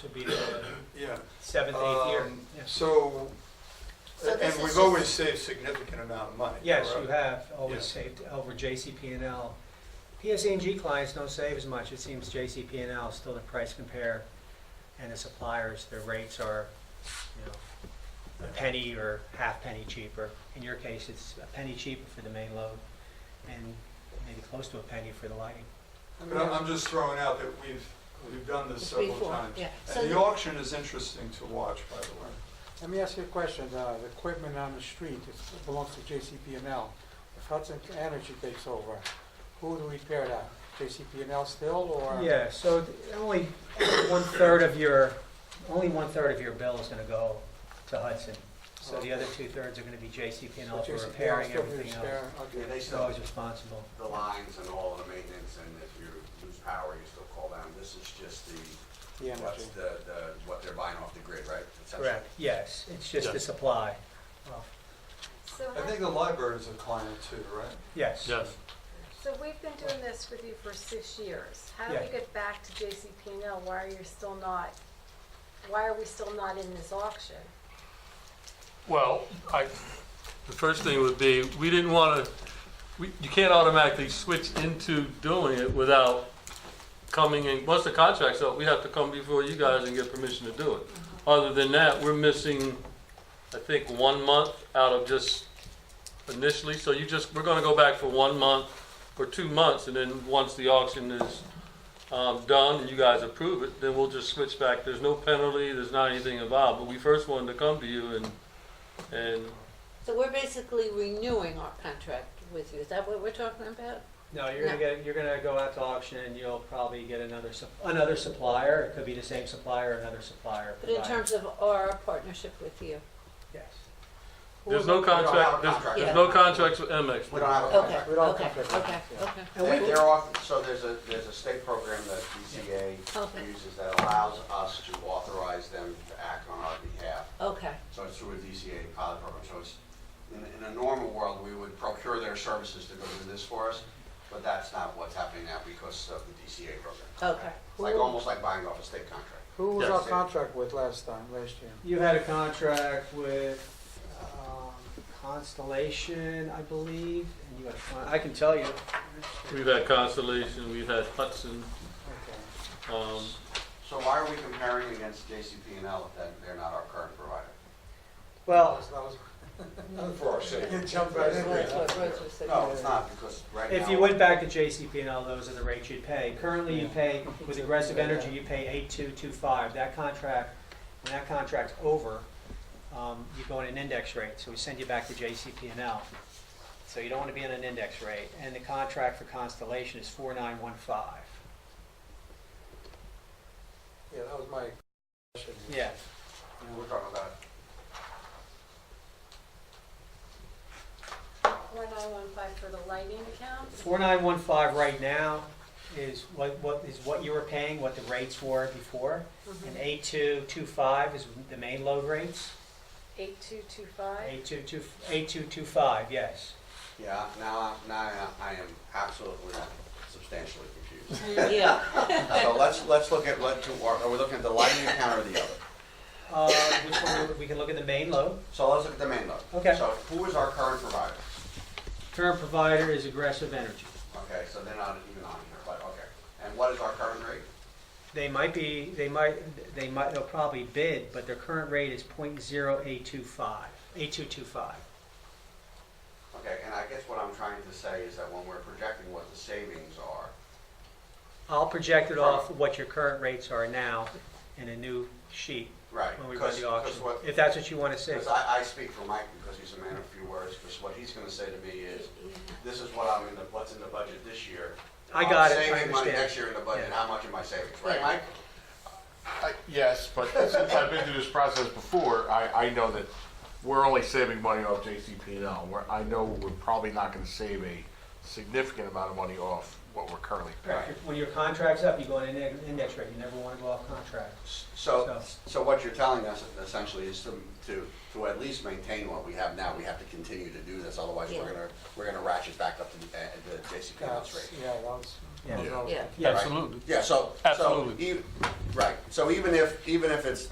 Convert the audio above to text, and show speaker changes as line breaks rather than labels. Should be the
Yeah.
seventh, eighth year.
Um,
Yes.
So,
So
and and
this is
we've
just-
always saved significant amount of money.
Yes, you
correct?
have always
Yeah.
saved over JCP&L. P.S.E.G. clients don't save as much. It seems JCP&L is still the price compare, and the suppliers, their rates are, you know, a penny or half penny cheaper. In your case, it's a penny cheaper for the main load and maybe close to a penny for the lighting.
But I'm, I'm just throwing out that we've, we've done this several
Before,
times.
yeah. So
And the
the-
auction is interesting to watch, by the way.
Let me ask you a question. Uh, The equipment on the street it's- it belongs to JCP&L. If Hudson Energy takes over, who do we repair that? JCP&L still, or?
Yeah, so th- only one-third of your, only one-third of your bill is gonna go to Hudson. So the other two-thirds are gonna be JCP&L for
JCP&L
repairing
still
everything else.
repair-
Yeah,
Okay.
they
It's
still,
always responsible.
the lines and all the maintenance, and if you lose power, you still call down. This is just the,
The energy.
what's the, the, what they're buying off the grid, right? Essentially.
Correct, yes, it's just the
Yeah.
supply.
So,
I think the library is a client too, right?
Yes.
Yes.
so we've been doing this with you for six years. How do
Yeah.
we get back to JCP&L? Why are you still not, why are we still not in this auction?
Well, I, the first thing would be, we didn't want to, we, you can't automatically switch into doing it without coming in, once the contract's up, we have to come before you guys and get permission to do it. Other than that, we're missing, I think, one month out of just initially, so you just, we're gonna go back for one month or two months, and then once the auction is, um, done and you guys approve it, then we'll just switch back. There's no penalty, there's not anything involved, but we first wanted to come to you and and
So we're basically renewing our contract with you, is that what we're talking about?
No, you're gonna get, you're gonna go out to auction and you'll probably get another, sup- another supplier. It could be the same supplier, another supplier.
But in
provider.
terms of our partnership with you?
Yes.
Who
there's
would-
no contract, there's,
contract.
there's no contracts with MX.
We don't have a
Okay,
contract.
We don't
okay,
conflict.
okay, okay.
They- They're off, so there's a, there's a state program that
Okay.
DCA uses that allows us to authorize them to act on our behalf.
Okay,
So it's through a DCA pilot program. So it's, in, in a normal world, we would procure their services to go do this for us, but that's not what's happening now because of the DCA program.
okay.
It's like, almost like buying off a state contract.
Who was our
Yes.
contract with last time, last year?
You had a contract with um, Constellation, I believe, and you had, a con- I can tell you.
We've had Constellation, we've had Hudson,
Okay.
um,
So why are we comparing against JCP&L if that- they're not our current provider?
Well,
Uh, For our city.
You jumped right in.
That's what Rose was saying.
Oh.
No, it's not, because right now.
if you went back to JCP&L, those are the rates you'd pay. Currently, you pay, with Aggressive Energy, you pay 8225. That contract, when that contract's over, um, you go on an index rate, so we send you back to JCP&L. So you don't want to be on an index rate, and the contract for Constellation is 4915.
Yeah, that was my question.
Yeah.
We're talking about,
4915 for the lighting account?
4915 right now is what, what, is what you were paying, what the rates were before. And 8225 is the main load rates.
8225?
8225, 8225, yes.
yeah, now, I- now I- I am absolutely substantially confused.
Mm, Yeah,
So let's, let's look at what, to- are we looking at the lighting account or the other?
Uh, which one, we can look at the main load.
So let's look at the main load.
Okay.
So who is our current provider?
Current provider is Aggressive Energy.
Okay, so they're not even on here, but, okay. And what is our current rate?
They might be, they might, they might, they'll probably bid, but their current rate is .0825, 8225.
Okay, and I guess what I'm trying to say is that when we're projecting what the savings are,
I'll project it off what your current rates are now in a new sheet
right?
when we run the auction,
Because
if that's what you want to say.
Because I, I speak for Mike because he's a man of few words, because what he's gonna say to me is, this is what I'm in the, what's in the budget this year.
I got it, I
I'm Saving money
understand.
next year in the budget,
Yeah.
how much am I saving, right,
Yeah.
Mike?
I- Yes, but since I've been through this process before, I, I know that we're only saving money off JCP&L. We're, I know we're probably not gonna save a significant amount of money off what we're currently paying.
Correct. When your contract's up, you go on an index- index rate, you never want to go off contract.
So, so what you're telling us essentially is to, to, to at least maintain what we have now, we have to continue to do this, otherwise we're
Yeah.
gonna, we're gonna ratchet back up to the, uh, the JCPenney's
That's-
rate.
Yeah, that was.
Yeah.
yeah.
absolutely.
Yeah, so. so
Absolutely.
e- Right, so even if, even if it's